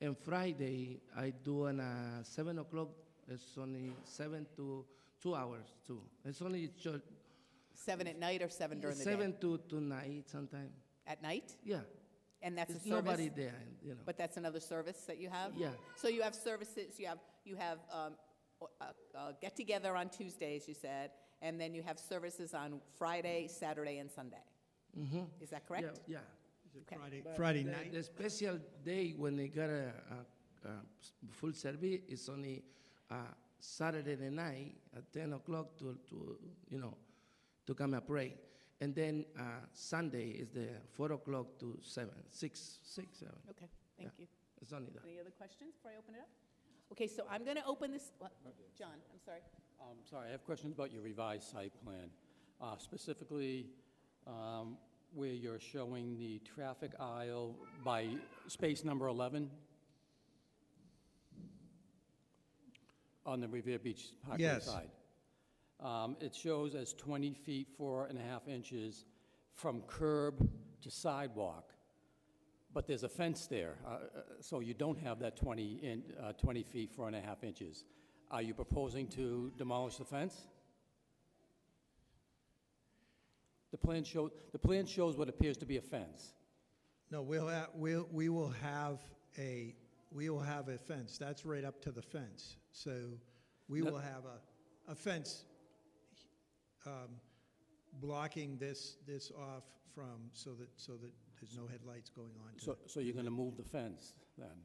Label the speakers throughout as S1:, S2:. S1: And Friday, I do an uh, seven o'clock. It's only seven to two hours too. It's only church,
S2: Seven at night or seven during the
S1: seven
S2: day?
S1: to to night sometime.
S2: At night?
S1: Yeah,
S2: And that's a
S1: it's
S2: service?
S1: nobody there. You know.
S2: But that's another service that you have?
S1: Yeah.
S2: So you have services, you have, you have um, o- uh, uh, get-together on Tuesdays, you said, and then you have services on Friday, Saturday, and Sunday. Mm-hmm. Is that correct?
S1: Yeah.
S2: Okay.
S3: Friday,
S1: yeah.
S3: Friday
S1: the,
S3: night?
S1: The special day when they got a, a, a s- full service is only uh, Saturday the night at ten o'clock to to you know to come and pray. And then uh, Sunday is the four o'clock to seven, six, six, seven.
S2: Okay, thank you.
S1: It's only that.
S2: Any other questions before I open it up? Okay, so I'm going to open this, what? John, I'm sorry.
S4: Um sorry, I have questions about your revised site plan, Uh, specifically um, where you're showing the traffic aisle by space number 11 on the Revere Beach Parkway
S3: Yes.
S4: side. Um, It shows as 20 feet, four and a half inches from curb to sidewalk, but there's a fence there, uh, uh, so you don't have that 20 in, uh, 20 feet, four and a half inches. Are you proposing to demolish the fence? The plan show, the plan shows what appears to be a fence.
S3: No, we'll, ha- we'll, we will have a, we will have a fence. That's right up to the fence. So we will have a, a fence um, blocking this, this off from, so that, so that there's no headlights going on to
S4: So,
S3: it.
S4: so you're gonna move the fence then?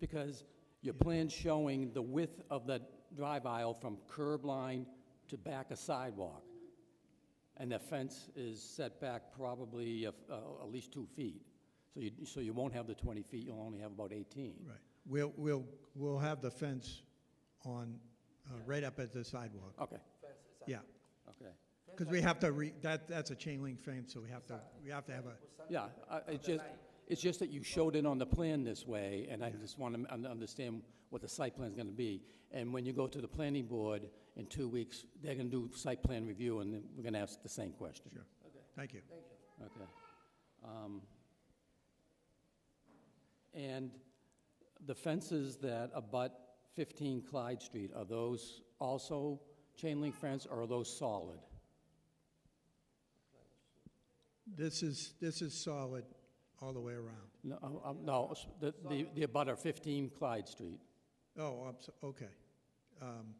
S4: Because your plan's showing the width of the drive aisle from curb line to back a sidewalk. And the fence is set back probably a f- uh, at least two feet. So you, so you won't have the 20 feet, you'll only have about 18.
S3: Right. We'll, we'll, we'll have the fence on, uh, right up at the sidewalk.
S4: Okay,
S3: Yeah.
S4: okay.
S3: Because we have to re, that, that's a chain link fence, so we have to, we have to have a,
S4: Yeah, I- it's just, it's just that you showed it on the plan this way, and I just want to understand what the site plan's going to be. And when you go to the planning board in two weeks, they're going to do site plan review, and then we're going to ask the same question.
S3: sure. Thank you.
S4: Okay. Um, And the fences that abut 15 Clyde Street, are those also chain link fence, or are those solid?
S3: This is, this is solid all the way around.
S4: No, uh, uh, no, s- the, the- the abutter 15 Clyde Street.
S3: Oh, I'm so- okay. Um,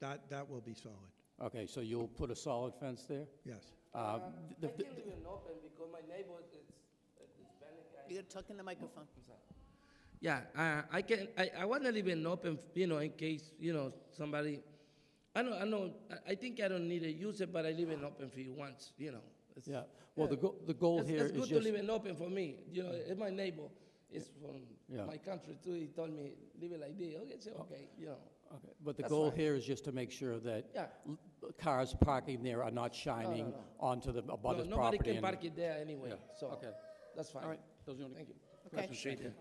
S3: That, that will be solid,
S4: Okay, so you'll put a solid fence there?
S3: yes.
S4: Uh,
S1: I
S4: the- the-
S1: can't even open because my neighbor is Hispanic.
S2: You're talking the microphone.
S1: Yeah, uh, I can. I, I want to leave an open, you know, in case you know somebody. I know. I know. I- I think I don't need to use it, but I leave an open for you once. You know. It's,
S4: Yeah, well, the go- the goal
S1: it's,
S4: here
S1: it's
S4: is
S1: good
S4: just...
S1: to leave an open for me. You know, it's my neighbor. It's from
S4: Yeah. Oh.
S1: my country too. He told me leave it like this. Okay, so okay. You know.
S4: Okay, But the
S1: That's
S4: goal
S1: fine.
S4: here is just to make sure that
S1: Yeah.
S4: l- cars parking there are not shining onto the
S1: no,
S4: abutters property.
S1: nobody can
S4: and-
S1: park it there anyway.
S4: Yeah,
S1: So
S4: okay.
S1: that's fine.
S4: All right, those are the only
S1: Thank you.
S2: Okay.
S4: questions. Thank you.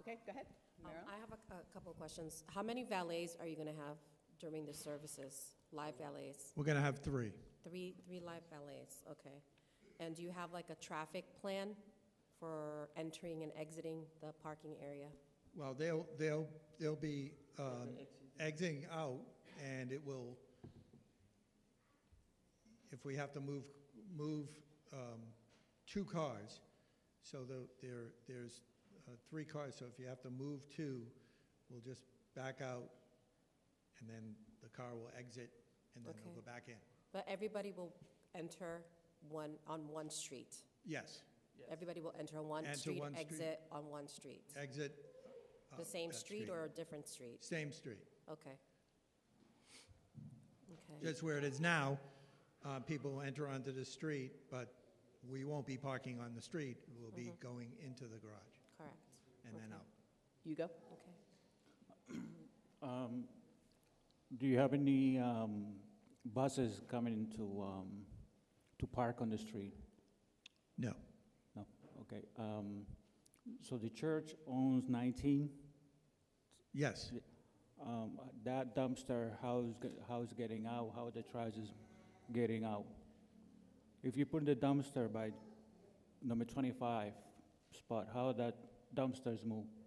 S2: Okay, go ahead.
S5: Um,
S2: Meryl?
S5: I have a, a couple of questions. How many valets are you going to have during the services? Live valets?
S3: We're going to have three.
S5: Three, three live valets, okay. And do you have like a traffic plan for entering and exiting the parking area?
S3: Well, they'll, they'll, they'll be um, exiting out, and it will, if we have to move, move um, two cars, so the- there, there's uh, three cars, so if you have to move two, we'll just back out, and then the car will exit, and then they'll
S5: Okay.
S3: go back in.
S5: But everybody will enter one, on one street.
S3: Yes,
S5: Everybody will enter on one
S3: Enter
S5: street,
S3: one street. Eh,
S5: exit on one street.
S3: exit. uh,
S5: The same
S3: that
S5: street or a different street?
S3: Same street.
S5: Okay. Okay,
S3: Just where it is now, uh, people will enter onto the street, but we won't be parking on the street. We'll be going into the garage
S5: correct,
S3: and then
S5: Okay.
S3: out.
S2: You go.
S5: okay.
S6: Um, Do you have any um, buses coming to, um, to park on the street?
S3: No,
S6: No, okay. Um, So the church owns 19.
S3: yes.
S6: Um, That dumpster, how's, ge- how's getting out, how the trash is getting out? If you put the dumpster by number 25 spot, how that dumpsters move?